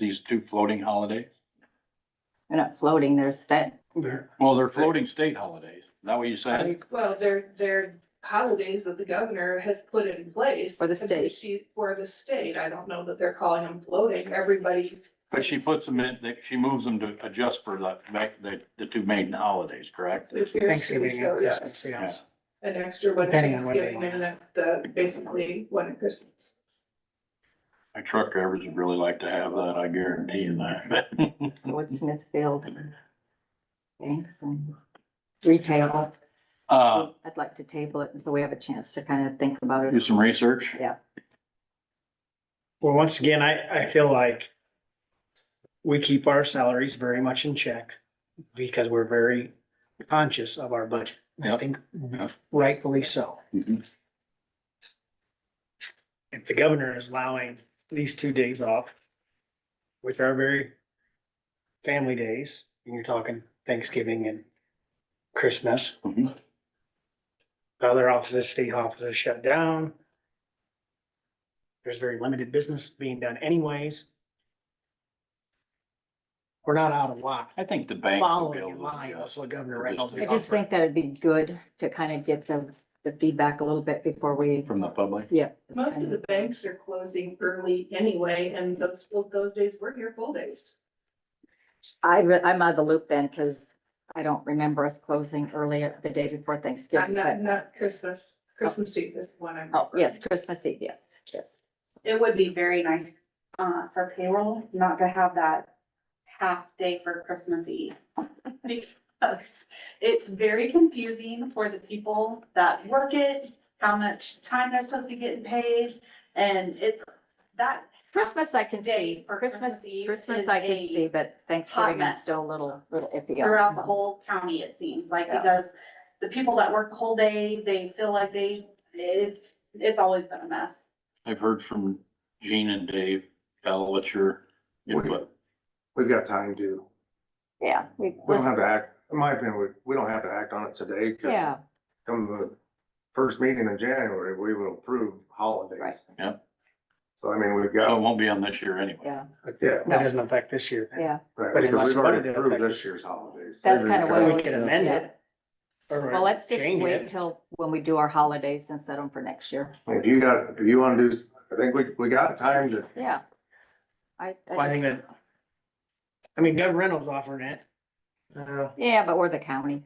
these two floating holidays? They're not floating, they're set. There, Well, they're floating state holidays. Is that what you said? Well, they're, they're holidays that the governor has put in place. For the state. She, for the state, I don't know that they're calling them floating, everybody. But she puts them in, that she moves them to adjust for the, the, the two main holidays, correct? appears to be Thanksgiving, so, yeah, yes. something else. An extra one at Depending on what they Thanksgiving and want. the, basically one at Christmas. My truck drivers would really like to have that, I guarantee you that. So it's Smithfield. Mm-hmm. Thanks and retail. Uh, I'd like to table it until we have a chance to kind of think about do it. some research. Yeah. Well, once again, I, I feel like we keep our salaries very much in check because we're very conscious of our budget. I Yep. think Yep. rightfully so. Mhm. If the governor is allowing these two days off with our very family days, and you're talking Thanksgiving and Christmas, Mhm. the other offices, state offices shut down. There's very limited business being done anyways. We're not out of lot I think the bank will be following in able to line with adjust. what Governor Reynolds I is just offering. think that it'd be good to kind of get the, the feedback a little bit before we, From the public? yeah. it's Most kind of the banks are closing early anyway, and those, full- those days were here full days. I, re- I'm out of the loop then, because I don't remember us closing early the day before Not, Thanksgiving, not, but, not Christmas, Christmas Eve is the one I'm. oh, yes, referring to. Christmas Eve, yes, yes. It would be very nice, uh, for payroll, not to have that half day for Christmas Eve. Because it's very confusing for the people that work it, how much time they're supposed to be getting paid, and it's that. Christmas I can see, Day for Christmas, Christmas Eve Christmas is I can a see, but Thanksgiving I'm mess. still a little, little iffy. on. Throughout the whole county, it seems like, Yeah. because the people that work the whole day, they feel like they, it's, it's always been a mess. I've heard from Gene and Dave, Al, what's your input? We've got time to, Yeah. We we don't have to act, in my opinion, we, we don't have to act on it today, cause Yeah, come the first meeting in January, we will approve Right. holidays. Yep. So I mean, we've So it got, won't be on this year anyway. yeah, yeah, That doesn't affect this year. yeah. right, But because unless we've already budgeted approved affects- this year's holidays. That's We've kinda got- what I We was- can amend yeah. it. or Well, let's just change wait it. till when we do our holidays and set them for next year. If you got, if you wanna do, s- I think we, we got time to, Yeah. I, Well, I I think just, that, I mean, Governor Reynolds offering it. Uh, yeah, but we're the county.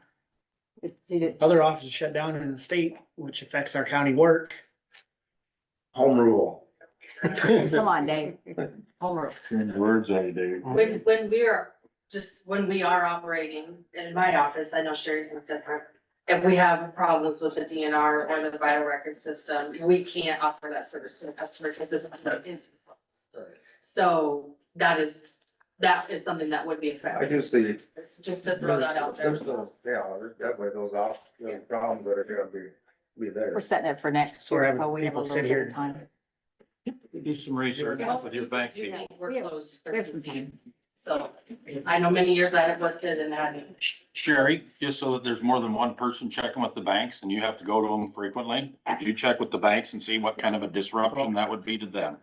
It- it- it- other offices shut down in the state, which affects our county work. home rule. Come on, Dave. Homework. Words I do. When, when we are, just when we are operating in my office, I know Sherry's was different. If we have problems with the DNR or the vital record system, we can't offer that service to the customer because this is. So that is, that is something that would be I affected. do see. It's Just to throw that out there. There's no, yeah, there's definitely those off, those problems that are gonna be, be there. We're setting it for next So we're year. having while Oh, we have a people little sit bit here of time. Do some research Most with your bank people do people. think We're We have- closed we have some Christmas Eve. time. So I know many years I have worked it and had Sherry, just so that there's more than one person checking with the banks and you have to go to them frequently, could you check with the banks and see what kind of a disruption that would be to them?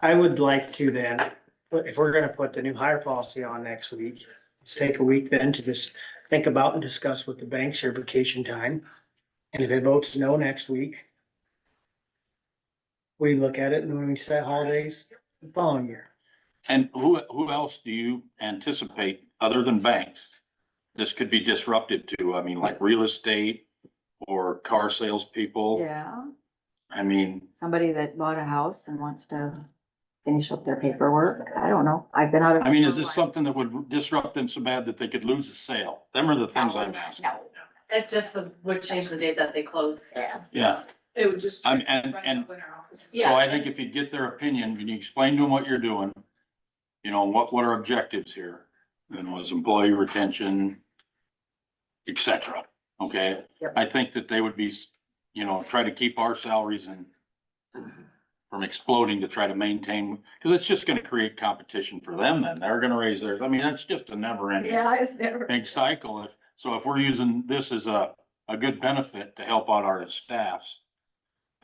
I would like to then, but if we're gonna put the new hire policy on next week, let's take a week then to just think about and discuss with the banks your vacation time. And if it votes no next week, we look at it and when we set holidays the following year. And who, who else do you anticipate, other than banks, this could be disrupted to? I mean, like real estate or car salespeople? Yeah, I mean, somebody that bought a house and wants to finish up their paperwork. I don't know. I've been out of. I mean, is this something that would disrupt them so bad that they could lose a sale? Them are the things I'm asking. No, It just would change the date that they close. yeah. Yeah, It would just. I'm, and, Right Um, and up in our office. Yeah. So I think if you get their opinion, and you explain to them what you're doing, you know, what, what are objectives here? And was employee retention, et cetera, okay? Yep. I think that they would be, you know, try to keep our salaries and from exploding to try to maintain, because it's just gonna create competition for them then. They're gonna raise theirs. I mean, that's just a never ending Yeah, it's never. big cycle. If- So if we're using this as a, a good benefit to help out our staffs,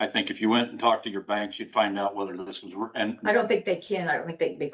I think if you went and talked to your banks, you'd find out whether this was, re- and I don't think they can. I don't think they'd be